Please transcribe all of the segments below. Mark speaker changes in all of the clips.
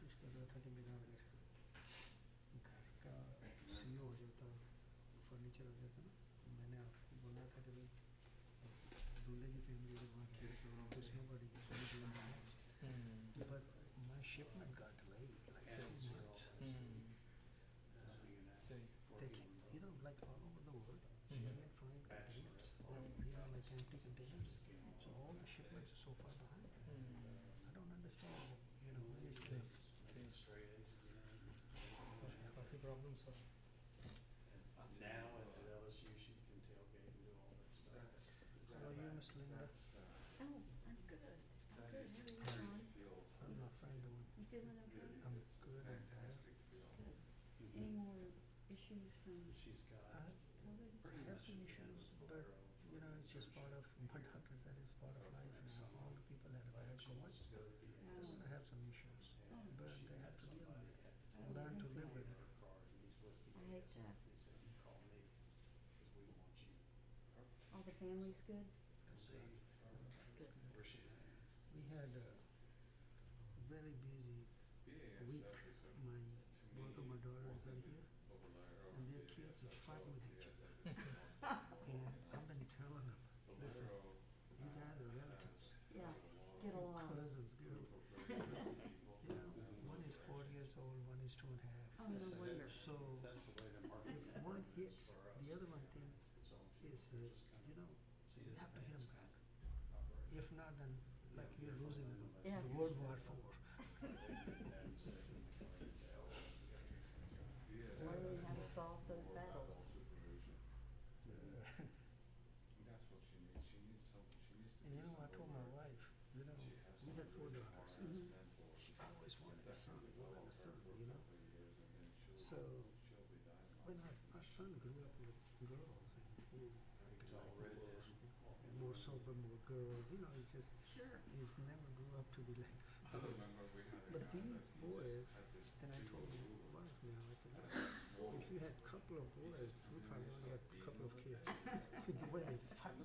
Speaker 1: खाली मिलावं लागेल घर का सी E हो जाता फर्नीचर हो जाता ना तो मैंने आपको बोला था कि भाई दूल्हे की फैमिली के वहाँ के उसमें बड़ी but my shipment got late like so much they can, you know, like all over the world, she
Speaker 2: Mhm.
Speaker 1: can find containers or you know, like empty containers. So all the shipments are so far behind. I don't understand, you know, where it's going.
Speaker 2: काफी problems है
Speaker 3: Now at the LSU, she can tailgate and do all that stuff.
Speaker 1: How are you, Miss Linda?
Speaker 4: Oh, I'm good. I'm good. How are you doing?
Speaker 1: I'm not fine doing.
Speaker 4: You feeling okay?
Speaker 1: I'm good and tired.
Speaker 4: Good. Any more issues from
Speaker 3: She's got.
Speaker 1: I
Speaker 4: COVID?
Speaker 1: have some issues, but you know, it's just part of my doctor said it's part of life now. All the people that have had COVID, they're gonna have some issues. But they have to deal with it. Learn to live with it.
Speaker 4: I hate that. All the family's good?
Speaker 1: We had a very busy week. My both of my daughters are here, and their kids are fighting with each other. And I've been telling them, listen, you guys are relatives,
Speaker 4: Yeah, get
Speaker 1: Your
Speaker 4: along.
Speaker 1: cousins, girl. You know, one is four years old, one is two and a half.
Speaker 4: Oh, no wonder.
Speaker 1: So
Speaker 3: That's the way the market
Speaker 1: if one hits,
Speaker 3: for
Speaker 1: the
Speaker 3: us.
Speaker 1: other one thing
Speaker 3: It's all
Speaker 1: is, uh, you know,
Speaker 3: See
Speaker 1: you
Speaker 3: the
Speaker 1: have to hit 'em
Speaker 3: advanced
Speaker 1: back.
Speaker 3: operation.
Speaker 1: If not, then like you're losing the
Speaker 4: Yeah.
Speaker 1: World War Four.
Speaker 4: Learning how to solve those battles.
Speaker 1: And you know, I told my wife, you know, we had four daughters.
Speaker 4: Mhm.
Speaker 1: She always wanted a son, wanted a son, you know. So when our, our son grew up with girls and he was acting like girls, and more sober, more girls, you know, he's just
Speaker 4: Sure.
Speaker 1: he's never grew up to be like. But these boys, and I told my wife now, I said, "Look, if you had a couple of boys, we probably only had a couple of kids. the way they fight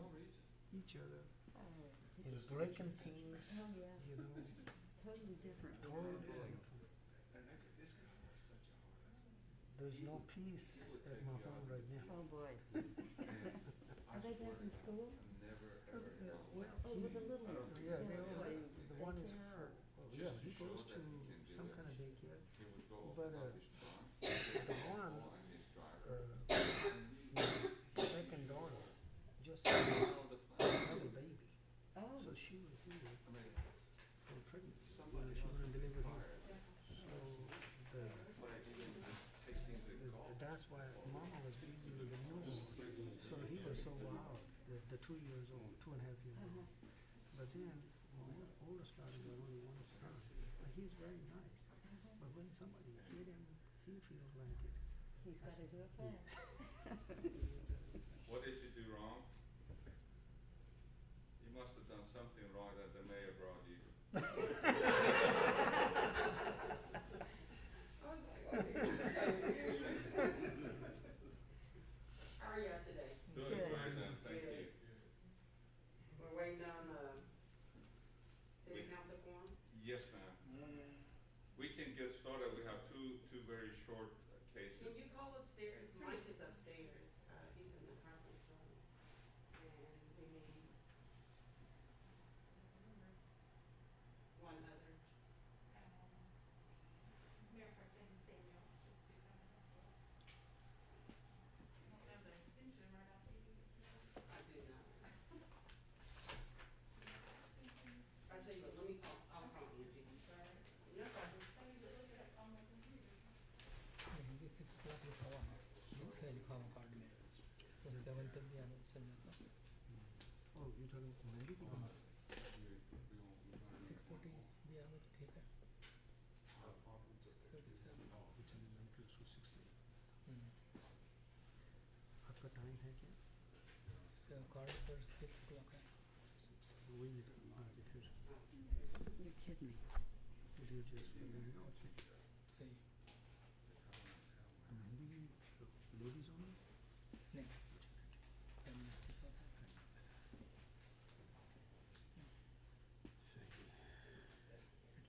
Speaker 1: each other
Speaker 4: Oh,
Speaker 1: and breaking things,
Speaker 4: oh yeah,
Speaker 1: you know,
Speaker 4: totally different.
Speaker 1: horrible. There's no peace at my home right now.
Speaker 4: Oh, boy. Are they back in school? Oh, with the little ones?
Speaker 1: Yeah, they
Speaker 4: yeah.
Speaker 1: all, the one is
Speaker 4: Daycare
Speaker 1: four.
Speaker 4: or-
Speaker 1: oh, Yeah, he goes to some kind of daycare, but, uh, the one, uh, my second daughter, just had a baby.
Speaker 4: Oh,
Speaker 1: So she was here for pregnancy, you know, she was delivered here. So the Uh, That's why Mama was busy with the new one. So he was so wild, the, the two years old, two and a half years old. But then, my old- oldest daughter got only one son, but he's very nice. But when somebody hit him, he feels like it.
Speaker 4: he's gotta do it fast.
Speaker 5: What did you do wrong? You must have done something wrong that the mayor brought you.
Speaker 6: How are y'all today?
Speaker 5: Doing
Speaker 4: Good.
Speaker 5: fine, then, thank you.
Speaker 6: We're waiting on, uh,
Speaker 5: We-
Speaker 6: city council forum?
Speaker 5: Yes, ma'am. We can get started, we have two, two very short uh,
Speaker 6: Can
Speaker 5: cases.
Speaker 6: you call upstairs? Mike is upstairs, uh, he's in the conference room. And we need one other.
Speaker 7: Mayor Perkins Samuels is becoming as well. Won't have the extension right after you.
Speaker 6: I do not. I tell you what, let me call, I'll call Angie. No problem.
Speaker 2: ये six clock लिखा
Speaker 3: 嗯
Speaker 2: हुआ है six है लिखा हुआ card में तो seven तक भी आना चल जाता
Speaker 1: Oh, you're talking to Mandy?
Speaker 2: Six thirty भी आना तो ठीक है thirty seven
Speaker 1: It's an elementary school, sixteen. आपका टाइम है क्या?
Speaker 2: सो कार्ड पर सिक्स क्लॉक है
Speaker 1: We need to, uh, it is,
Speaker 4: You're kidding me.
Speaker 1: it is just, you know,
Speaker 2: सही
Speaker 1: Mandy, uh, ladies only?
Speaker 2: नहीं